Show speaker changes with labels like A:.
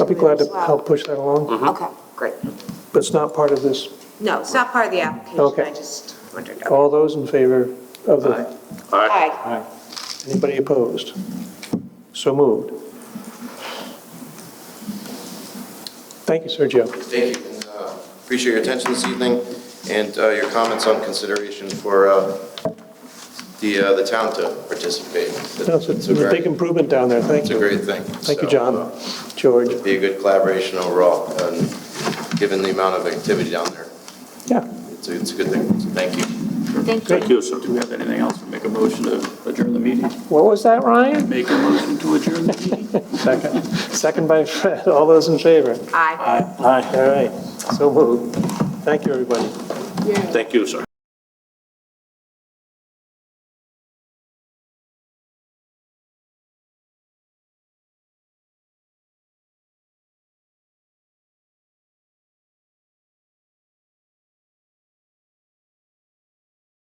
A: I'll be glad to help push that
B: Mm.
A: along,
C: Okay, great.
A: but it's not part of this.
C: No, it's not part of the application,
A: Okay.
C: I just wondered.
A: All those in favor of the,
C: Aye.
A: anybody opposed? So moved. Thank you, Sergio.
B: Thank you, and uh, appreciate your attention this evening and uh, your comments on consideration for uh, the, uh, the town to participate.
A: No, It's a- it's
B: a
A: a big
B: great-
A: improvement down there, thank
B: It's a
A: you.
B: great thing.
A: Thank you,
B: So, uh,
A: John, George.
B: Be a good collaboration overall, and given the amount of activity down there,
A: Yeah,
B: it's a, it's a good thing, so thank you.
C: Thank you.
D: Thank you. So do we have anything else? Make a motion to adjourn the meeting?
A: what was that, Ryan?
D: Make a motion to adjourn the meeting?
A: Second, second by Fred, all those in favor?
C: Aye.
D: Aye.
A: All right, so moved. Thank you, everybody.
D: Thank you, sir.